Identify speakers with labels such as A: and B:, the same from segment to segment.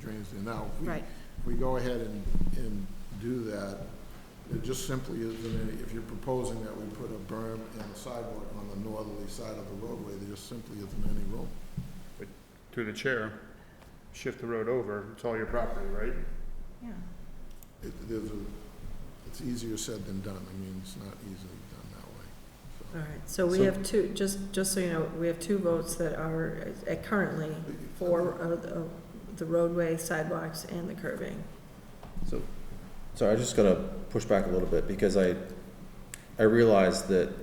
A: drains there now. If we-
B: Right.
A: If we go ahead and, and do that, it just simply isn't any, if you're proposing that we put a berm and a sidewalk on the northerly side of the roadway, there just simply isn't any room.
C: But through the chair, shift the road over, it's all your property, right?
B: Yeah.
A: It, there's a, it's easier said than done. I mean, it's not easily done that way, so.
B: All right, so we
C: So-
B: have two, just, just so you know, we have two votes that are uh, currently for uh, the- the roadway, sidewalks, and the curbing.
D: So, sorry, I just gotta push back a little bit, because I, I realize that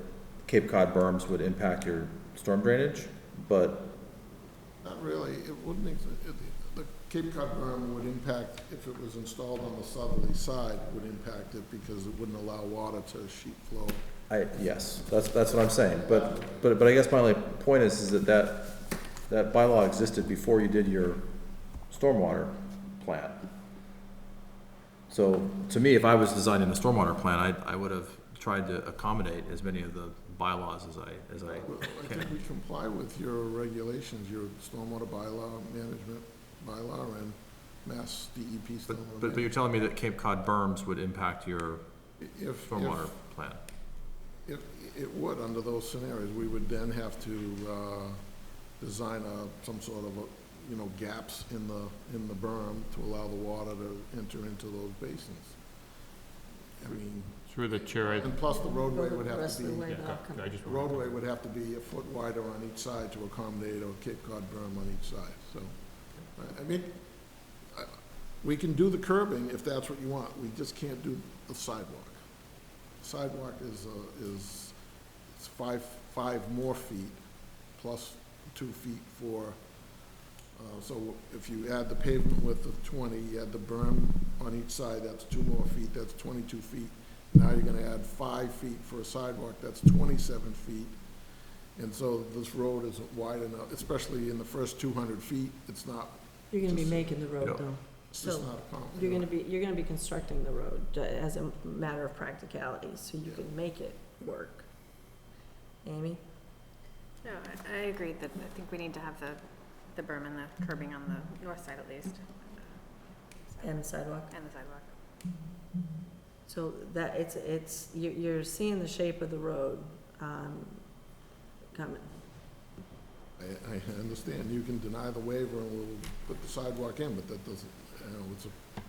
D: Cape Cod berms would impact your storm drainage, but,
A: Not really, it wouldn't, ex- it- the Cape Cod berm would impact, if it was installed on the southerly side, would impact it because it wouldn't allow water to sheet flow.
D: I, yes, that's, that's what I'm saying, but, but, but I guess my only point is, is that that, that bylaw existed before you did your stormwater plan. So, to me, if I was designing a stormwater plan, I, I would have tried to accommodate as many of the bylaws as I, as I
A: Well, I think we comply with your regulations, your stormwater bylaw, management bylaw, and Mass DEP
D: But,
A: stormwater.
D: but, but
A: management.
D: you're telling me that Cape Cod berms would impact your
A: If,
D: stormwater
A: if,
D: plan?
A: if, it would, under those scenarios, we would then have to, uh, design a, some sort of, a, you know, gaps in the, in the berm to allow the water to enter into those basins. I mean.
C: Through the chair, I,
A: And plus, the roadway
B: Go
A: would
B: the
A: have
B: rest
A: to
B: of the
A: be,
B: way
C: yeah,
B: back.
C: I just.
A: roadway would have to be a foot wider on each side to accommodate a Cape Cod berm on each side, so. I- I mean, I- we can do the curbing if that's what you want, we just can't do the sidewalk. Sidewalk is, uh, is, it's five, five more feet, plus two feet for, uh, so if you add the pavement width of twenty, you add the berm on each side, that's two more feet, that's twenty-two feet. Now you're gonna add five feet for a sidewalk, that's twenty-seven feet. And so this road isn't wide enough, especially in the first two hundred feet, it's not,
B: You're
A: gonna be
B: making the
D: Yeah.
B: road, though.
A: it's just
B: So,
A: not a
B: You're gonna be, you're gonna be constructing the road uh, as a matter of practicality, so you
A: Yeah.
B: can make it work. Amy?
E: No, I, I agree that, I think we need to have the, the berm and the curbing on the north side at least,
B: And the sidewalk?
E: and the sidewalk.
B: So that, it's, it's, you- you're seeing the shape of the road um, coming.
A: I, I understand, you can deny the waiver and we'll put the sidewalk in, but that doesn't, you know, it's a,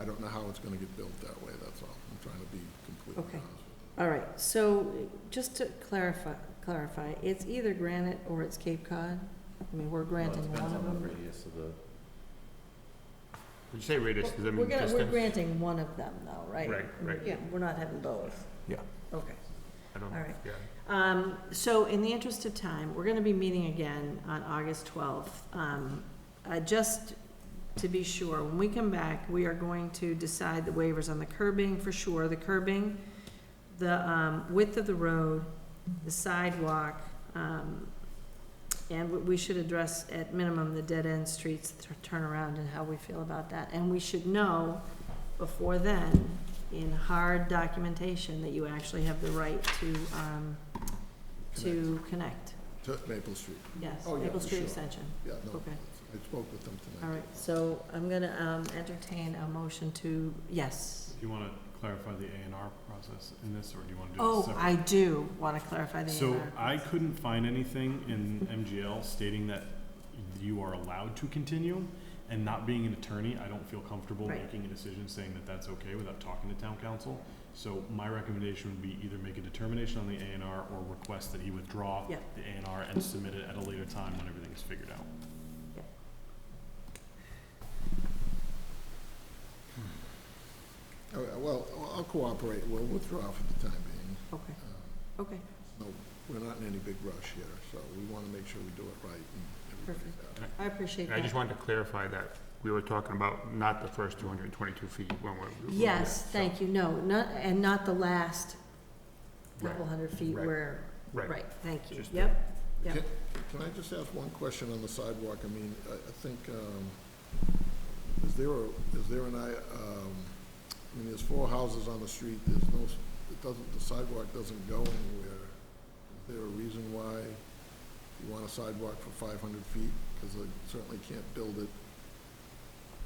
A: I don't know how it's gonna get built that way, that's all. I'm trying to be completely honest
B: Okay.
A: with
B: All right, so just to clarify, clarify, it's either granite or it's Cape Cod? I mean, we're granting one of them.
C: Would you say radius, does that
B: We're
C: mean
B: gonna-
C: distance?
B: We're granting one of them though, right?
C: Right, right.
B: Yeah, we're not having both.
D: Yeah.
B: Okay.
C: I don't-
B: all right.
C: yeah.
B: Um, so in the interest of time, we're gonna be meeting again on August twelfth. Um, uh, just to be sure, when we come back, we are going to decide the waivers on the curbing for sure, the curbing, the, um, width of the road, the sidewalk, um, and we- we should address at minimum the dead-end streets, the turnaround, and how we feel about that. And we should know before then, in hard documentation, that you actually have the right to, um, to connect.
A: you. To Maple Street,
B: Yes,
A: Oh, yeah,
B: Maple
A: for
B: Street
A: sure.
B: Extension.
A: yeah, no,
B: Okay.
A: I spoke with them tonight.
B: All right, so I'm gonna, um, entertain a motion to, yes.
F: Do you want to clarify the A and R process in this, or do you want to do this
B: Oh,
F: separate?
B: I do wanna clarify the A
F: So I couldn't find anything in MGL stating that you are allowed to continue, and not being an attorney, I don't feel comfortable
B: Right.
F: making a decision saying that that's okay without talking to town council. So my recommendation would be either make a determination on the A and R or request that he withdraw
B: Yeah.
F: the A and R and submit it at a later time when everything is figured out.
A: All right, Oh, well, I'll cooperate, we'll withdraw for the time being.
B: Okay,
A: Uh,
B: okay,
A: No, we're not in any big rush here, so we want to make sure we do it right and everybody's
B: Perfect.
A: happy.
B: I appreciate
C: And
B: that.
C: I just wanted to clarify that we were talking about not the first two hundred and twenty-two feet when we're. when we're-
B: Yes,
C: so-
B: thank you, no, not, and not the last couple
C: Right,
B: hundred feet
C: right,
B: where,
C: right.
B: right, thank you,
C: Just-
B: yep, yep.
A: Can- Can I just ask one question on the sidewalk? I mean, I, I think, um, is there a, is there an, I, um, I mean, there's four houses on the street, there's no, s- it doesn't, the sidewalk doesn't go anywhere. Is there a reason why you want a sidewalk for five hundred feet? Because I certainly can't build it